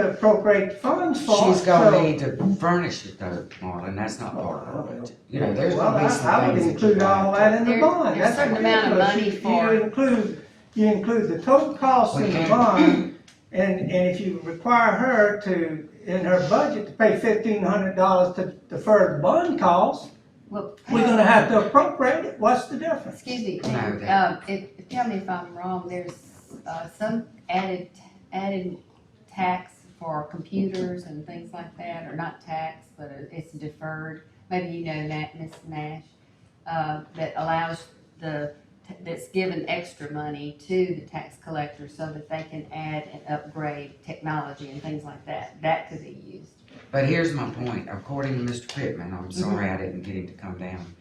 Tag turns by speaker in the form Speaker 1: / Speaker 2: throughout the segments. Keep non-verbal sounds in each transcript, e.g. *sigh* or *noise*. Speaker 1: to appropriate funds for.
Speaker 2: She's gonna
Speaker 1: so-
Speaker 2: need to furnish it though, Marlon, that's not part of it. You know, there's
Speaker 1: Well, I,
Speaker 2: gonna be some things
Speaker 1: I would
Speaker 2: that you
Speaker 1: include all
Speaker 2: got.
Speaker 1: that in the
Speaker 3: There-
Speaker 1: bond, that's
Speaker 3: there's certain amount of
Speaker 1: ridiculous.
Speaker 3: money
Speaker 1: You-
Speaker 3: for-
Speaker 1: You include, you include the total cost
Speaker 2: We
Speaker 1: in the
Speaker 2: can't-
Speaker 1: bond, and, and if you require her to, in her budget, to pay fifteen hundred dollars to defer the bond cost,
Speaker 3: Well,
Speaker 1: we're gonna have to appropriate it, what's the difference?
Speaker 3: *laughs* Excuse me,
Speaker 2: No,
Speaker 3: and,
Speaker 2: that-
Speaker 3: uh, if, if- tell me if I'm wrong, there's, uh, some added, added tax for computers and things like that, or not tax, but it's deferred. Maybe you know that, Ms. Nash, uh, that allows the, that's given extra money to the tax collector so that they can add and upgrade technology and things like that. That could be used.
Speaker 2: But here's my point, according to Mr. Pittman,
Speaker 1: Mm-hmm.
Speaker 2: I'm sorry I didn't get him to come down.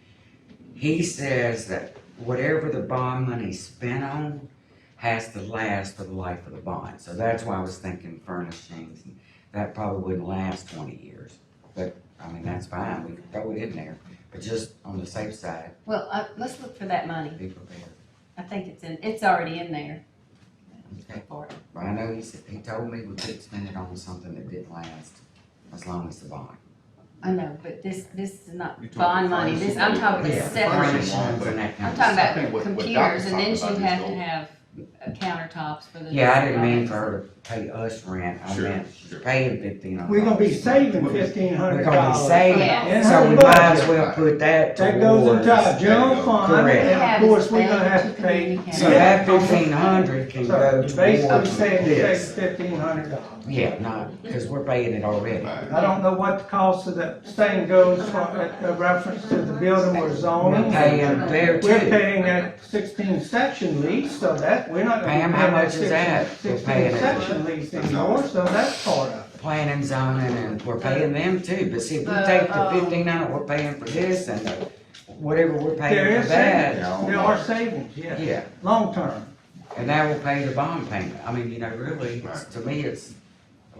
Speaker 2: He says that whatever the bond money's spent on has to last for the life of the bond. So that's why I was thinking furnishings, and that probably wouldn't last twenty years. But, I mean, that's fine, we can throw it in there, but just on the safe side,
Speaker 3: Well, uh, let's look for that money.
Speaker 2: be prepared.
Speaker 3: I think it's in, it's already in there
Speaker 2: Okay.
Speaker 3: for it.
Speaker 2: But I know he said, he told me we could spend it on something that didn't last as long as the bond.
Speaker 3: I know, but this, this is not
Speaker 4: You
Speaker 3: bond
Speaker 4: talking
Speaker 3: money, this, I'm talking
Speaker 4: It's
Speaker 2: Yeah,
Speaker 3: about
Speaker 4: furniture.
Speaker 2: furnishings
Speaker 4: separate.
Speaker 3: separate,
Speaker 2: and that kind
Speaker 3: I'm
Speaker 2: of
Speaker 3: talking
Speaker 2: stuff.
Speaker 4: I think
Speaker 3: about
Speaker 4: what- what
Speaker 3: computers,
Speaker 4: Doc's
Speaker 3: and then
Speaker 4: talking
Speaker 3: she'd
Speaker 4: about
Speaker 3: have to
Speaker 4: is
Speaker 3: have uh, countertops for the.
Speaker 2: Yeah, I didn't mean for her to pay us rent, I
Speaker 4: Sure,
Speaker 2: meant she's
Speaker 4: sure.
Speaker 2: paying fifteen hundred.
Speaker 1: We're gonna be saving
Speaker 4: We're-
Speaker 1: fifteen
Speaker 2: We're
Speaker 1: hundred
Speaker 2: gonna
Speaker 1: dollars.
Speaker 2: be saving,
Speaker 3: Yeah.
Speaker 2: it. so we might as well put that
Speaker 1: That goes
Speaker 2: towards.
Speaker 1: into our
Speaker 2: So
Speaker 1: general fund,
Speaker 2: Correct.
Speaker 1: and of course, we're gonna have to pay.
Speaker 2: that fifteen hundred can
Speaker 1: So
Speaker 2: go
Speaker 1: you basically
Speaker 2: towards
Speaker 1: saying you take
Speaker 2: this.
Speaker 1: fifteen hundred dollars.
Speaker 2: Yeah, no, cause we're paying it already.
Speaker 1: I don't know what the cost of that thing goes for, uh, reference to the building we're
Speaker 2: We're
Speaker 1: zoning.
Speaker 2: paying there
Speaker 1: We're
Speaker 2: too.
Speaker 1: paying that sixteen section lease, so that, we're not gonna
Speaker 2: Pam,
Speaker 1: pay
Speaker 2: how
Speaker 1: that
Speaker 2: much is that? We're
Speaker 1: sixteen,
Speaker 2: paying
Speaker 1: sixteen
Speaker 2: it.
Speaker 1: section lease anymore, so that's part of it.
Speaker 2: Planning, zoning, and
Speaker 1: Uh,
Speaker 2: we're paying them too, but see, if we take the
Speaker 1: um,
Speaker 2: fifteen hundred, we're paying for this and the- whatever
Speaker 1: There
Speaker 2: we're paying
Speaker 1: is
Speaker 2: for that.
Speaker 1: savings, there are savings, yes,
Speaker 2: Yeah,
Speaker 1: long term.
Speaker 2: and that will pay the bond payment. I mean, you know, really, it's- to me, it's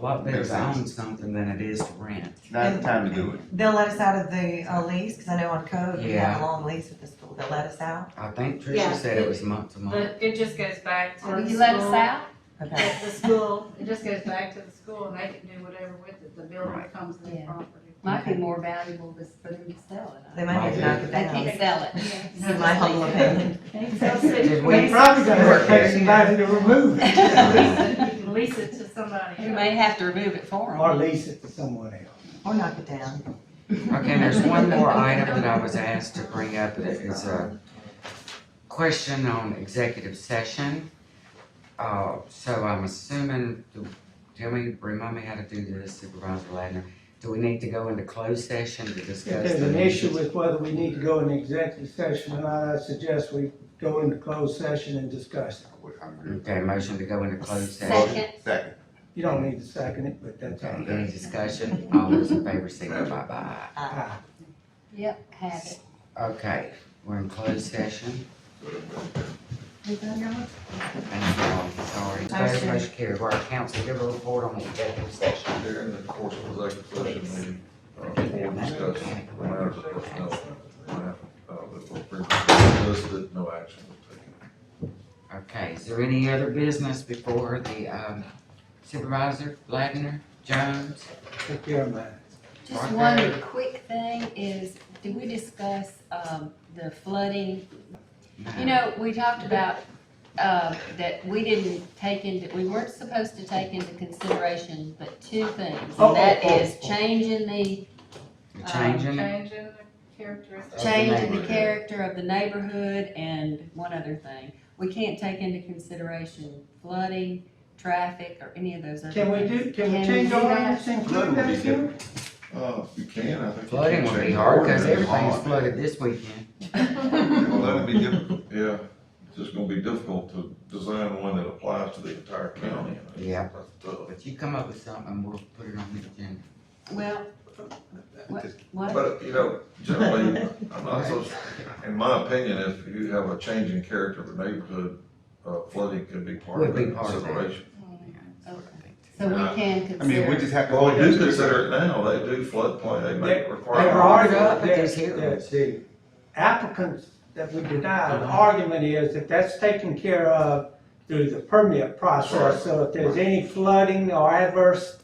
Speaker 2: a lot better
Speaker 4: Makes
Speaker 2: to
Speaker 4: sense.
Speaker 2: own something than it is to rent.
Speaker 4: Now's the time to do it.
Speaker 5: They'll let us out of the uh, lease, because I know on code, we have
Speaker 2: Yeah.
Speaker 5: a long lease with the school, they'll let us out,
Speaker 2: I think
Speaker 6: Yeah.
Speaker 2: Tricia said it was month to month.
Speaker 6: But it just goes back to
Speaker 3: Will
Speaker 6: the
Speaker 3: you let us
Speaker 6: school-
Speaker 3: out?
Speaker 5: okay?
Speaker 6: The the school, it just goes back to the school and they can do whatever with it, the building
Speaker 2: Right.
Speaker 6: comes in
Speaker 3: Yeah.
Speaker 6: property.
Speaker 3: Might be more valuable just for them to sell it.
Speaker 5: They might have to knock it
Speaker 3: They can't
Speaker 5: down,
Speaker 3: sell it.
Speaker 5: in my humble opinion.
Speaker 3: *laughs*
Speaker 2: Did
Speaker 1: We
Speaker 2: we?
Speaker 1: probably gonna have to pay somebody to remove
Speaker 2: *laughs*
Speaker 1: it,
Speaker 6: You can lease it to somebody.
Speaker 3: You may have to remove it for
Speaker 1: or
Speaker 3: them.
Speaker 1: lease it to someone else.
Speaker 5: Or knock it down.
Speaker 2: Okay, and there's one more item that I was asked to bring up, and it is a question on executive session. Uh, so I'm assuming, do- tell me, remind me how to do this Supervisor Ladner. Do we need to go into closed session to
Speaker 1: If
Speaker 2: discuss?
Speaker 1: there's
Speaker 2: the
Speaker 1: an
Speaker 2: issues?
Speaker 1: issue with whether we need to go in executive session or not, I suggest we go into closed session and discuss it.
Speaker 2: Okay, motion to go into closed session.
Speaker 3: Second.
Speaker 4: Second.
Speaker 1: You don't need to second it, but that's all.
Speaker 2: Okay, any discussion? All those in favor signify by aye.
Speaker 1: Ah.
Speaker 3: Yep, have it.
Speaker 2: Okay, we're in closed session.
Speaker 3: We done now?
Speaker 2: Thank you all, sorry. Motion motion carried. Our council, give a report on the executive session.
Speaker 7: Here in the course of executive session, we, uh, board discussed the matters of personnel. Uh, that were previously listed, no action was taken.
Speaker 2: Okay, is there any other business before the um, supervisor, Ladner, Jones?
Speaker 1: Take care of mine.
Speaker 3: Just
Speaker 2: Right
Speaker 3: one
Speaker 2: there.
Speaker 3: quick thing is, did we discuss, um, the flooding You know, we talked about, uh, that we didn't take into, we weren't supposed to take into consideration but two things.
Speaker 1: Oh, oh,
Speaker 3: And that
Speaker 1: oh,
Speaker 3: is
Speaker 1: oh.
Speaker 3: changing the,
Speaker 2: The Changing, it?
Speaker 6: Changing the characteristics.
Speaker 2: the
Speaker 3: changing the
Speaker 2: neighborhood.
Speaker 3: character of the neighborhood and one other thing. We can't take into consideration flooding, traffic, or any of those other
Speaker 1: Can we
Speaker 3: things.
Speaker 1: do, can
Speaker 3: Can
Speaker 1: we
Speaker 3: we
Speaker 1: change
Speaker 3: do
Speaker 1: our
Speaker 3: that?
Speaker 1: ordinance and include
Speaker 4: Flooding would
Speaker 1: that
Speaker 4: be
Speaker 1: here?
Speaker 7: Uh, you can, I think. you
Speaker 3: um,
Speaker 2: flooding
Speaker 7: can
Speaker 2: will be
Speaker 7: change
Speaker 2: hard because
Speaker 7: ordinance
Speaker 2: everything's
Speaker 7: on it.
Speaker 2: flooded this weekend.
Speaker 7: Well, that'd be difficult, yeah, it's just gonna be difficult to design one that applies to the entire county.
Speaker 2: Yeah.
Speaker 7: That's tough.
Speaker 2: But you come up with something, we'll put it on the agenda.
Speaker 3: *laughs* Well, what, what?
Speaker 7: But, you know, generally, I'm not so, in my opinion, if you have a change in character of the neighborhood, uh, flooding could be part of
Speaker 2: Would
Speaker 7: the
Speaker 2: be part of that.
Speaker 7: consideration.
Speaker 3: So we can
Speaker 4: Uh, I mean, we
Speaker 3: consider,
Speaker 4: just have to.
Speaker 7: Well, they do consider it now, they do floodplain, they make
Speaker 2: They
Speaker 1: Their
Speaker 2: brought it
Speaker 7: requirements.
Speaker 2: up at
Speaker 1: argument-
Speaker 2: these
Speaker 1: their-
Speaker 2: hearings.
Speaker 1: their- The applicants that we denied, the
Speaker 4: Uh-huh.
Speaker 1: argument is that that's taken care of through the permit process. So if there's any flooding or adverse